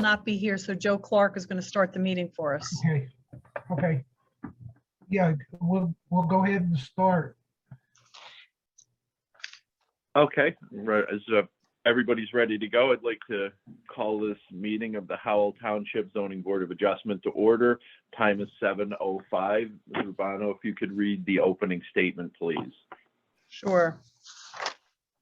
not be here, so Joe Clark is going to start the meeting for us. Okay, okay. Yeah, we'll, we'll go ahead and start. Okay, right, as uh, everybody's ready to go, I'd like to call this meeting of the Howell Township Zoning Board of Adjustment to order. Time is 7:05. Ms. Urbano, if you could read the opening statement, please. Sure.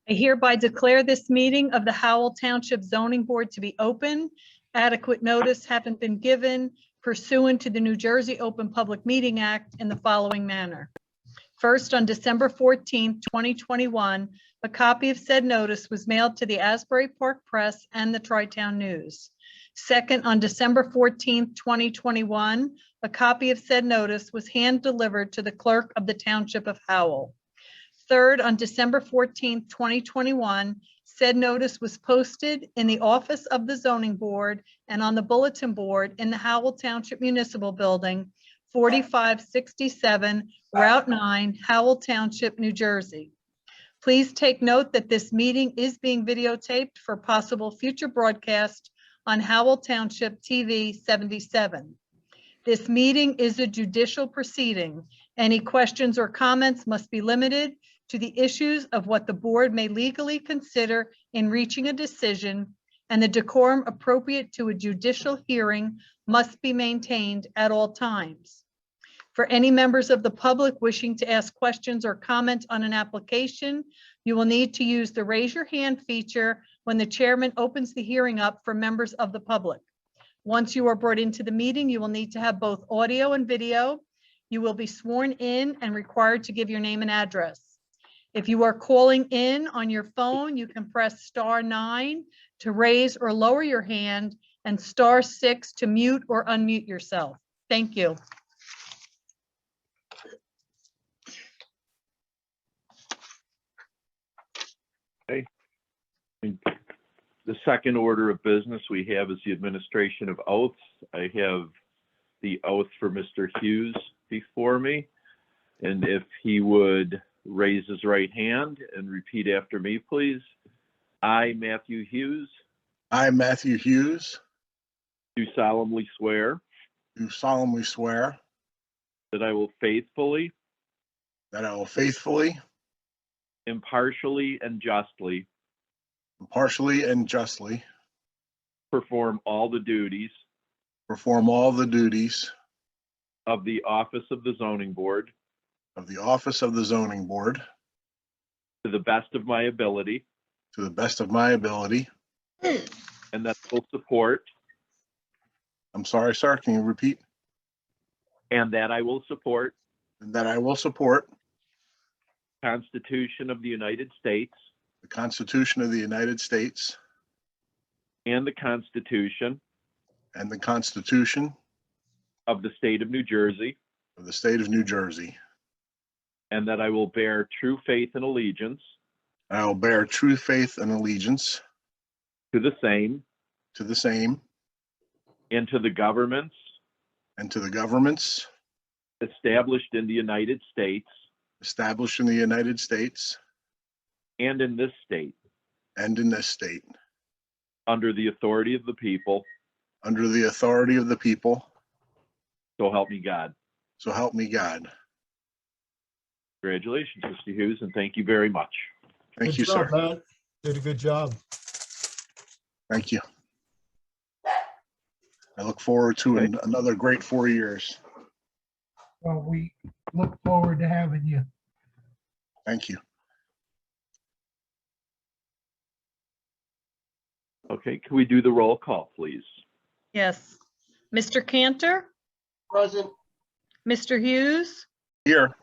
I hereby declare this meeting of the Howell Township Zoning Board to be open. Adequate notice haven't been given pursuant to the New Jersey Open Public Meeting Act in the following manner. First, on December 14, 2021, a copy of said notice was mailed to the Asbury Park Press and the Tri-Town News. Second, on December 14, 2021, a copy of said notice was hand-delivered to the clerk of the Township of Howell. Third, on December 14, 2021, said notice was posted in the office of the zoning board and on the bulletin board in the Howell Township Municipal Building, 4567 Route 9, Howell Township, New Jersey. Please take note that this meeting is being videotaped for possible future broadcast on Howell Township TV 77. This meeting is a judicial proceeding. Any questions or comments must be limited to the issues of what the board may legally consider in reaching a decision, and the decorum appropriate to a judicial hearing must be maintained at all times. For any members of the public wishing to ask questions or comment on an application, you will need to use the raise your hand feature when the chairman opens the hearing up for members of the public. Once you are brought into the meeting, you will need to have both audio and video. You will be sworn in and required to give your name and address. If you are calling in on your phone, you can press star nine to raise or lower your hand and star six to mute or unmute yourself. Thank you. The second order of business we have is the administration of oaths. I have the oath for Mr. Hughes before me. And if he would raise his right hand and repeat after me, please. I, Matthew Hughes, I, Matthew Hughes, do solemnly swear do solemnly swear that I will faithfully, that I will faithfully, impartially, and justly impartially, and justly perform all the duties perform all the duties of the office of the zoning board of the office of the zoning board to the best of my ability, to the best of my ability. and that I will support, I'm sorry, sir, can you repeat? and that I will support That I will support Constitution of the United States the Constitution of the United States and the Constitution and the Constitution of the State of New Jersey, of the State of New Jersey. and that I will bear true faith and allegiance and I will bear true faith and allegiance to the same to the same and to the governments and to the governments established in the United States established in the United States and in this state and in this state, under the authority of the people, under the authority of the people, so help me God. so help me God. Congratulations, Mr. Hughes, and thank you very much. Thank Good you, job, sir. Matt. Did a good job. Thank you. I look forward to an- another great four years. Well, we look forward to having you. Thank you. Okay, can we do the roll call, please? Yes. Mr. Cantor, Present, Mr. Hughes, Here,